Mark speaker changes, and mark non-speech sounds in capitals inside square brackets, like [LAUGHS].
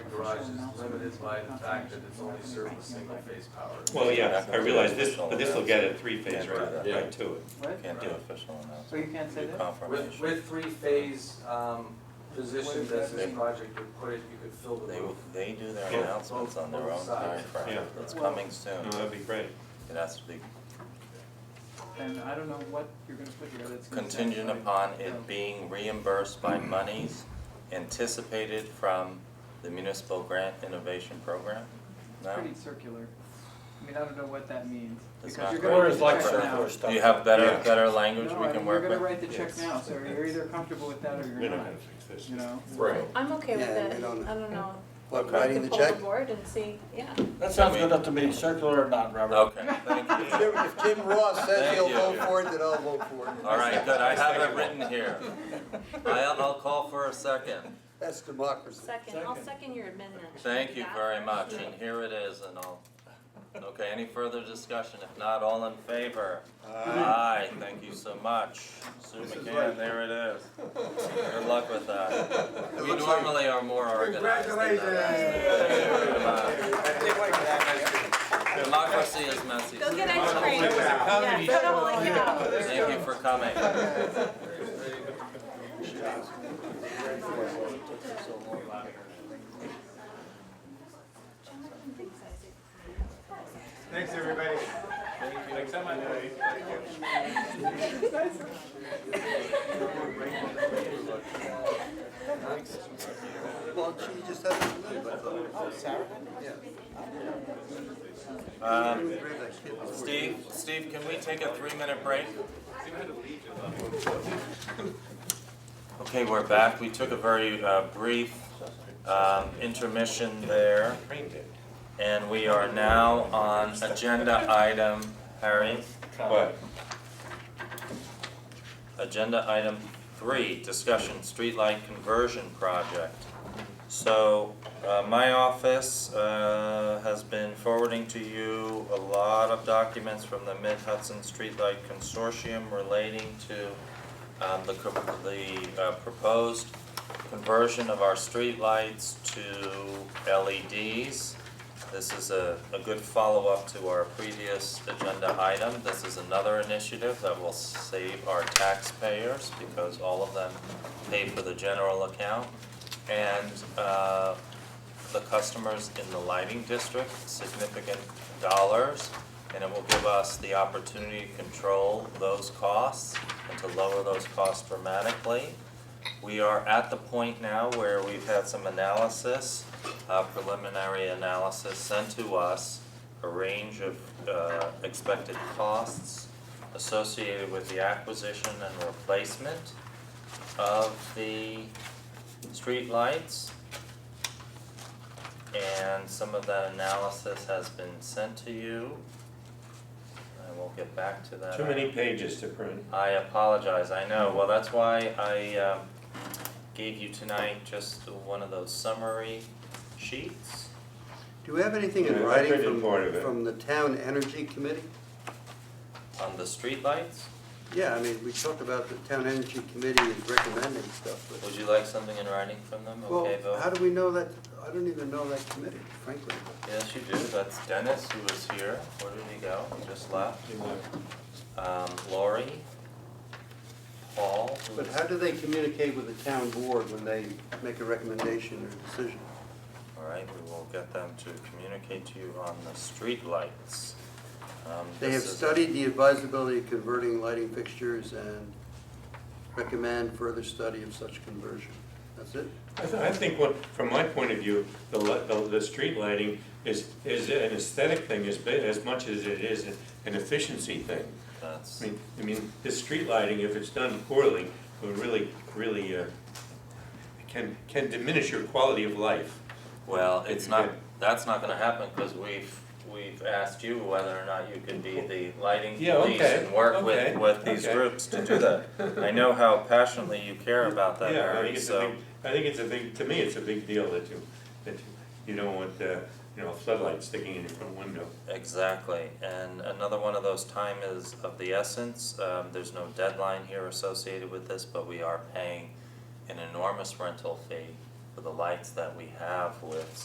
Speaker 1: is limited by the fact that it's only serving a single phase power.
Speaker 2: Well, yeah, I realize this, but this will get a three-phase right,
Speaker 3: Yeah.
Speaker 2: right to it.
Speaker 4: What?
Speaker 3: Can't do
Speaker 2: Yeah.
Speaker 3: official announcement.
Speaker 4: So you can't say
Speaker 3: Do
Speaker 4: that?
Speaker 1: With,
Speaker 3: Confirmation.
Speaker 1: with three phase, um, position that this project would put it, you could fill the
Speaker 3: They,
Speaker 1: roof.
Speaker 3: they do their
Speaker 2: Yeah.
Speaker 3: announcements on their own
Speaker 1: Both sides.
Speaker 3: timeframe.
Speaker 2: Yeah.
Speaker 3: It's coming soon.
Speaker 2: No, that'd be great.
Speaker 3: It has to be
Speaker 4: And I don't know what you're gonna put here that's. gonna
Speaker 3: contingent
Speaker 4: satisfy-
Speaker 3: upon
Speaker 4: No.
Speaker 3: it being reimbursed by monies anticipated from the municipal grant innovation program? No?
Speaker 4: Pretty circular. I mean, I don't know what that means,
Speaker 3: It's
Speaker 4: because
Speaker 3: not
Speaker 4: you're
Speaker 3: great.
Speaker 4: gonna write
Speaker 3: Or
Speaker 4: the check
Speaker 3: like
Speaker 4: now.
Speaker 3: Do you have better,
Speaker 2: Yeah.
Speaker 3: better language
Speaker 4: No,
Speaker 3: we
Speaker 4: I
Speaker 3: can
Speaker 4: mean, you're
Speaker 3: work
Speaker 4: gonna
Speaker 3: with?
Speaker 4: write the check
Speaker 2: Yes.
Speaker 4: now, so you're either comfortable with that or
Speaker 2: We're
Speaker 4: you're
Speaker 2: not
Speaker 4: not,
Speaker 2: gonna fix this.
Speaker 4: you know?
Speaker 5: Right.
Speaker 6: I'm okay with
Speaker 5: Yeah,
Speaker 6: it, I
Speaker 5: we don't-
Speaker 6: don't know.
Speaker 5: What,
Speaker 3: Okay.
Speaker 5: writing the
Speaker 6: We can
Speaker 5: check?
Speaker 6: pull the board and see, yeah.
Speaker 7: That sounds good enough to me, circular or not, Robert.
Speaker 3: Okay, thank you.
Speaker 5: If Jim- if Jim Ross says
Speaker 3: Thank
Speaker 5: he'll
Speaker 3: you.
Speaker 5: vote for it, then I'll vote for it.
Speaker 3: All right, good, I have it written
Speaker 4: [LAUGHS]
Speaker 3: here. I'll, I'll call for a second.
Speaker 5: That's democracy.
Speaker 6: Second, I'll
Speaker 7: Second.
Speaker 6: second your amendment.
Speaker 3: Thank you
Speaker 6: Got
Speaker 3: very
Speaker 6: it?
Speaker 3: much,
Speaker 6: Yeah.
Speaker 3: and here it is, and I'll, okay, any further discussion? If not, all in favor? Aye, thank you so much. Sue McCann, there it is. Good luck with that. We
Speaker 5: looks like-
Speaker 3: normally are more organized than that. Congratulations! Democracy is messy.
Speaker 6: Go get ice cream. Oh, Yeah, totally, yeah.
Speaker 3: Thank you for coming.
Speaker 8: Thanks, everybody. Thanks so much.
Speaker 5: Well, she just has to leave, I thought.
Speaker 3: Um,
Speaker 5: Grab that kid.
Speaker 3: Steve, Steve, can we take a three-minute break? Okay, we're back. We took a very uh, brief um, intermission there. And we are now on agenda item, Harry,
Speaker 2: But,
Speaker 3: agenda item three, discussion, streetlight conversion project. So, uh, my office, uh, has been forwarding to you a lot of documents from the Mid Hudson Streetlight Consortium relating to, um, the, co- the uh, proposed conversion of our streetlights to E LEDs. This is a, a good follow-up to our previous agenda item. This is another initiative that will save our taxpayers because all of them pay for the general account. And uh, the customers in the lighting district significant dollars. And it will give us the opportunity to control those costs and to lower those costs dramatically. We are at the point now where we've had some analysis, uh, preliminary analysis sent to us, a range of, uh, expected costs associated with the acquisition and replacement of the streetlights. And some of that analysis has been sent to you. I will get back to that.
Speaker 2: too many pages to print.
Speaker 3: I apologize, I know, well, that's why I um gave you tonight just one of those summary sheets.
Speaker 5: Do we have anything in
Speaker 2: Yeah, I
Speaker 5: writing
Speaker 2: printed
Speaker 5: from,
Speaker 2: part of it.
Speaker 5: from the town energy committee?
Speaker 3: On the streetlights,
Speaker 5: Yeah, I mean, we talked about the town energy committee is recommending stuff, but.
Speaker 3: would you like something in writing from them, okay, Bill?
Speaker 5: Well, how do we know that, I don't even know that committee, frankly.
Speaker 3: Yes, you do, that's Dennis who was here, where did he go, he just left,
Speaker 2: You know,
Speaker 3: um Lori, Paul, who
Speaker 5: But
Speaker 3: was-
Speaker 5: how do they communicate with the town board when they make a recommendation or decision?
Speaker 3: all right, we will get them to communicate to you on the streetlights. Um
Speaker 5: They have
Speaker 3: this is-
Speaker 5: studied the advisability of converting lighting fixtures and recommend further study of such conversion. That's it?
Speaker 2: I, th- I think what, from my point of view, the, li- the, the street lighting is, is an aesthetic thing as, bi- as much as it is an efficiency thing.
Speaker 3: That's.
Speaker 2: I mean, I mean, this street lighting, if it's done poorly, will really, really, uh, can, can diminish your quality of life.
Speaker 3: Well, it's not,
Speaker 2: Yeah.
Speaker 3: that's not gonna happen, cause we've, we've asked you whether or not you could be the lighting
Speaker 2: Yeah,
Speaker 3: police
Speaker 2: okay,
Speaker 3: and work
Speaker 2: okay,
Speaker 3: with, with these
Speaker 2: okay.
Speaker 3: groups to do that. I know how passionately you care about that,
Speaker 2: [LAUGHS] Yeah, I
Speaker 3: Harry,
Speaker 2: think it's a
Speaker 3: so,
Speaker 2: big, I think it's a big, to me, it's a big deal that you, that you, you don't want, uh, you know, a floodlight sticking in your front window.
Speaker 3: exactly. And another one of those time is of the essence, um, there's no deadline here associated with this, but we are paying an enormous rental fee for the lights that we have with